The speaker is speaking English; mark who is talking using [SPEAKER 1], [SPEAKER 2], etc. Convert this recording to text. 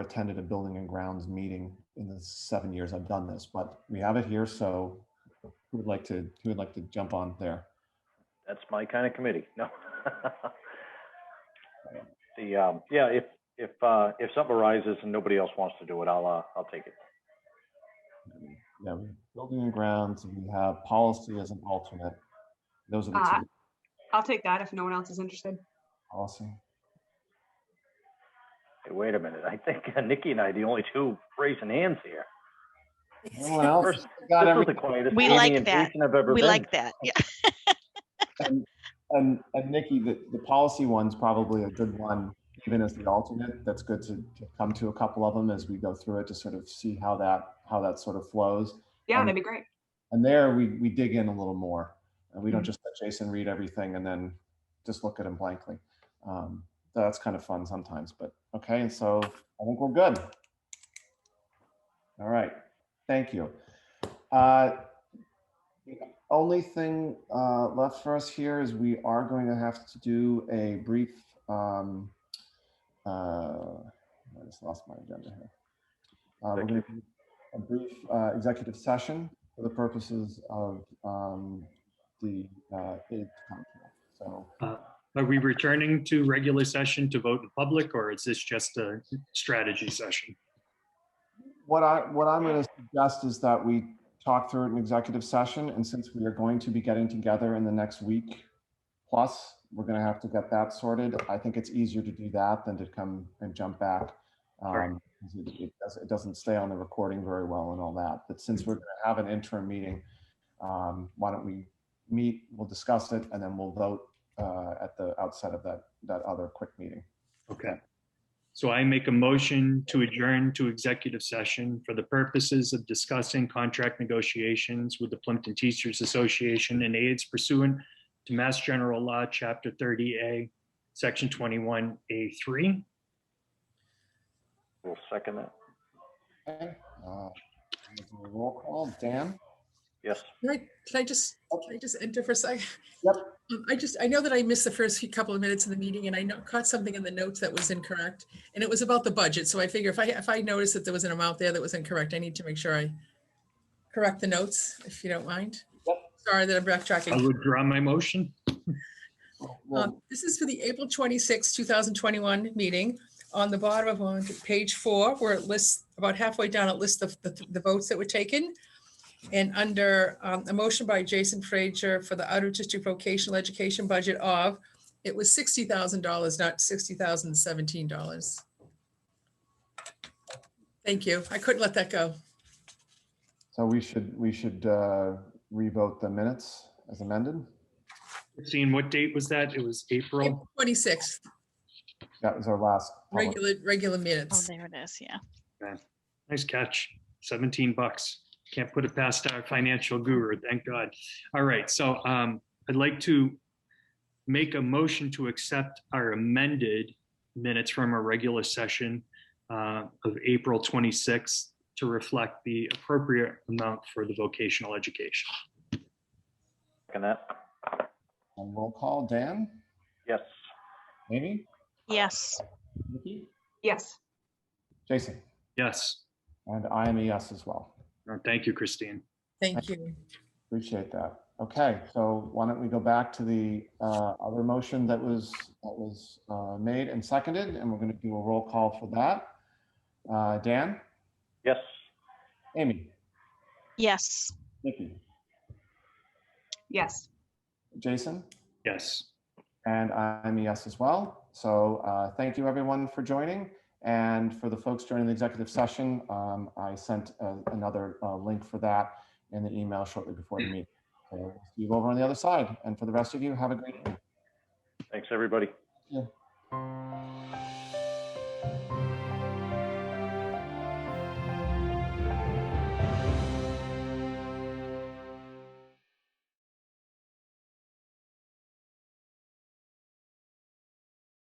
[SPEAKER 1] attended a building and grounds meeting in the seven years I've done this, but we have it here, so who would like to, who would like to jump on there?
[SPEAKER 2] That's my kind of committee. No. The, um, yeah, if, if, uh, if something arises and nobody else wants to do it, I'll, uh, I'll take it.
[SPEAKER 1] Yeah, we have building and grounds, we have policy as an alternate. Those are the
[SPEAKER 3] Uh,
[SPEAKER 1] two,
[SPEAKER 3] I'll take that if no one else is interested.
[SPEAKER 1] policy.
[SPEAKER 2] Hey, Wait a minute. I think uh, Nikki and I, the only two raising hands here.
[SPEAKER 1] No one else
[SPEAKER 2] First,
[SPEAKER 1] got
[SPEAKER 2] This is
[SPEAKER 1] everything.
[SPEAKER 2] the quietest
[SPEAKER 4] We
[SPEAKER 2] meeting
[SPEAKER 4] like
[SPEAKER 2] and
[SPEAKER 4] that.
[SPEAKER 2] briefing I've ever
[SPEAKER 4] We
[SPEAKER 2] been
[SPEAKER 4] like that. Yeah.
[SPEAKER 1] And, and, and Nikki, the, the policy one's probably a good one, even as the alternate. That's good to, to come to a couple of them as we go through it to sort of see how that, how that sort of flows.
[SPEAKER 3] Yeah,
[SPEAKER 1] Um,
[SPEAKER 3] that'd be great.
[SPEAKER 1] And there we, we dig in a little more and we don't just let Jason read everything and then just look at him blankly. Um, that's kind of fun sometimes, but okay. And so I think we're good. All right. Thank you. Uh, the only thing uh, left for us here is we are going to have to do a brief. Um, uh, I just lost my agenda here. Uh, we're going to do a brief uh, executive session for the purposes of um, the uh, aid contract. So
[SPEAKER 5] Are we returning to regular session to vote in public, or is this just a strategy session?
[SPEAKER 1] what I what I'm going to suggest is that we talk through it in executive session, and since we are going to be getting together in the next week plus, we're going to have to get that sorted. I think it's easier to do that than to come and jump back.
[SPEAKER 5] Sure.
[SPEAKER 1] Um, 'cause it, it doesn't, it doesn't stay on the recording very well and all that. But since we're going to have an interim meeting, um, why don't we meet? We'll discuss it, and then we'll vote uh, at the outset of that that other quick meeting.
[SPEAKER 5] Okay. So I make a motion to adjourn to executive session for the purposes of discussing contract negotiations with the Plimpton Teachers Association and aides pursuant to Mass General Law, Chapter 30A, Section 21A3.
[SPEAKER 2] We'll second that.
[SPEAKER 1] Okay. Uh, roll call. Dan.
[SPEAKER 2] Yes.
[SPEAKER 6] Can I, can I just, can I just enter for a second?
[SPEAKER 1] Yep.
[SPEAKER 6] Um, I just, I know that I missed the first few couple of minutes of the meeting and I know, caught something in the notes that was incorrect. And it was about the budget. So I figure if I, if I notice that there was an amount there that was incorrect, I need to make sure I correct the notes, if you don't mind.
[SPEAKER 1] Yep.
[SPEAKER 6] Sorry that I'm
[SPEAKER 5] I
[SPEAKER 6] backtracking.
[SPEAKER 5] withdraw my motion.
[SPEAKER 1] Well,
[SPEAKER 6] Um, This is for the April 26, 2021 meeting. On the bottom of on page four, where it lists, about halfway down, it lists the, the- the votes that were taken. And under um, a motion by Jason Frazier for the outer district vocational education budget of, it was $60,000, not $60,017. Thank you. I couldn't let that go.
[SPEAKER 1] So we should, we should uh, revote the minutes as amended.
[SPEAKER 5] Seeing what date was that? It was April.
[SPEAKER 6] April 26th,
[SPEAKER 1] That was our last. public-
[SPEAKER 6] regular, regular
[SPEAKER 4] Oh,
[SPEAKER 6] minutes.
[SPEAKER 4] there it is. Yeah.
[SPEAKER 5] Nice catch. 17 bucks. Can't put it past our financial guru. Thank God. All right. So um, I'd like to make a motion to accept our amended minutes from our regular session uh, of April 26th to reflect the appropriate amount for the vocational education.
[SPEAKER 2] Second that.
[SPEAKER 1] And Roll call, Dan,
[SPEAKER 2] Yes.
[SPEAKER 1] Amy,
[SPEAKER 4] Yes.
[SPEAKER 1] Nikki,
[SPEAKER 3] Yes.
[SPEAKER 1] Jason,
[SPEAKER 5] Yes.
[SPEAKER 1] and I am a yes as well.
[SPEAKER 5] Uh, Thank you, Christine.
[SPEAKER 6] Thank you.
[SPEAKER 1] Appreciate that. Okay, so why don't we go back to the uh, other motion that was, that was uh, made and seconded, and we're going to do a roll call for that. Uh, Dan,
[SPEAKER 2] Yes.
[SPEAKER 1] Amy,
[SPEAKER 4] Yes.
[SPEAKER 1] Nikki,
[SPEAKER 3] Yes.
[SPEAKER 1] Jason,
[SPEAKER 5] Yes.
[SPEAKER 1] And I'm a yes as well. So uh, thank you everyone for joining. And for the folks joining the executive session, um, I sent uh, another uh, link for that in the email shortly before the meeting. So we'll see you over on the other side. And for the rest of you, have a great day.
[SPEAKER 2] Thanks, everybody.